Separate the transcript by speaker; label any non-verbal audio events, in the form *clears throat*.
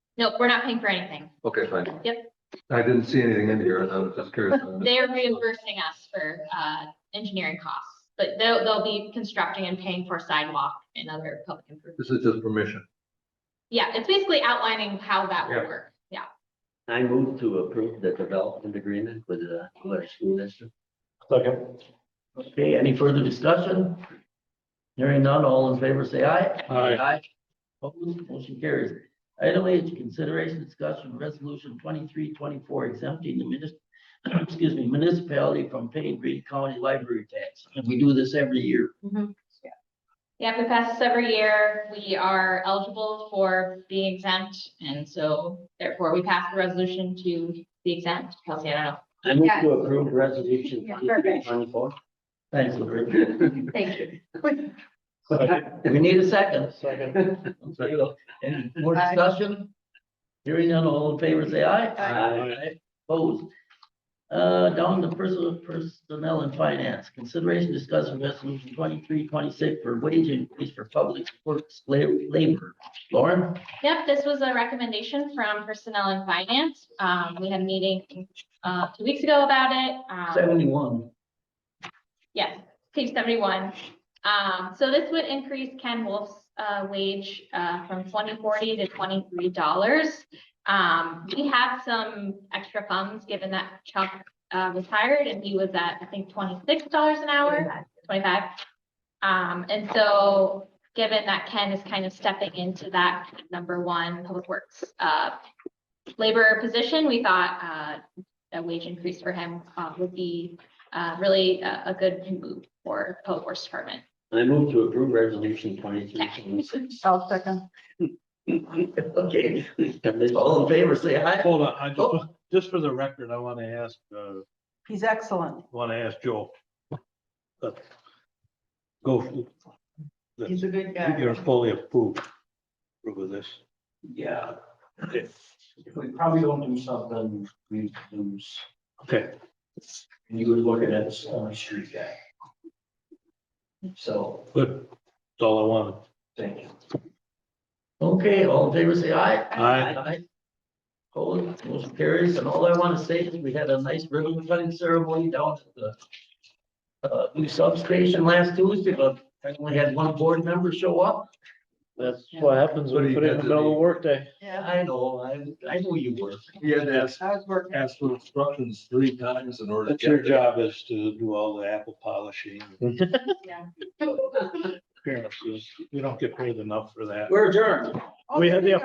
Speaker 1: Nope, we're not paying for anything.
Speaker 2: Okay, fine.
Speaker 1: Yep.
Speaker 2: I didn't see anything in here, and I was just curious.
Speaker 1: *laughs* They are reimbursing us for uh engineering costs, but they'll they'll be constructing and paying for sidewalk and other public improvements.
Speaker 2: This is just permission.
Speaker 1: Yeah, it's basically outlining how that will
Speaker 2: Yeah.
Speaker 1: work. Yeah,
Speaker 3: I move to approve the development agreement with the Blair School District.
Speaker 4: Second.
Speaker 3: Okay, any further discussion? Hearing none, all in favor, say aye.
Speaker 4: Aye.
Speaker 3: Opposed, motion carries. Item H, consideration discussion resolution twenty-three twenty-four exempting the minis, *clears throat* excuse me, municipality from paying Green County library tax. And we do this every year.
Speaker 1: yeah, we pass this every year. We are eligible for being exempt, and so therefore we pass the resolution to be exempt. Kelsey, I don't know.
Speaker 3: I move
Speaker 5: Yes.
Speaker 3: to approve resolution
Speaker 5: Yeah,
Speaker 3: twenty-three
Speaker 5: perfect.
Speaker 3: twenty-four. Thanks, Lori. *laughs*
Speaker 5: Thank you.
Speaker 3: We need a second.
Speaker 4: Second.
Speaker 3: Okay, well, *laughs* Any more discussion? Hearing none, all in favor, say aye.
Speaker 4: Aye.
Speaker 3: Opposed? Uh, down to personal, personnel and finance, consideration discussing resolution twenty-three, twenty-six for wage increase for public works la- labor. Lauren?
Speaker 1: Yep, this was a recommendation from Personnel and Finance. Um, we had a meeting uh two weeks ago about it. Um,
Speaker 3: Seventy-one.
Speaker 1: Yes, page seventy-one. Um, so this would increase Ken Wolf's, uh, wage, uh, from twenty forty to twenty-three dollars. Um, we have some extra funds, given that Chuck, uh, was hired and he was at, I think, twenty-six dollars an hour, twenty-five. Um, and so, given that Ken is kind of stepping into that number one public works, uh, labor position, we thought, uh, a wage increase for him, uh, would be uh, really a, a good move for Public Works Department.
Speaker 3: I move to approve resolution twenty-three, twenty-six.
Speaker 5: I'll second.
Speaker 3: Okay, all in favor, say aye.
Speaker 4: Hold on, I just, just for the record, I want to ask, uh,
Speaker 5: He's excellent.
Speaker 4: want to ask Joel. Uh, Go,
Speaker 5: He's a good
Speaker 4: you're fully approved with this.
Speaker 6: Yeah. If, if we probably don't do something, we lose.
Speaker 4: Okay,
Speaker 6: And you were looking at this only street guy. So,
Speaker 4: good. That's all I wanted.
Speaker 6: thank you.
Speaker 3: Okay, all in favor, say aye.
Speaker 4: Aye.
Speaker 3: Opposed, motion carries, and all I want to say is we had a nice ribbon cutting ceremony down at the uh, new substation last Tuesday, but I only had one board member show up.
Speaker 7: That's what happens when you put it in the middle of the workday.
Speaker 5: Yeah,
Speaker 3: I know, I, I know you were.
Speaker 2: He had to ask,
Speaker 5: I was working.
Speaker 2: ask for instructions three times in order to
Speaker 4: That's
Speaker 2: get.
Speaker 4: your
Speaker 2: it.
Speaker 4: job is to do all the apple polishing.
Speaker 7: *laughs*
Speaker 4: Appearances. We don't get paid enough for that.
Speaker 3: We're adjourned.
Speaker 4: We had the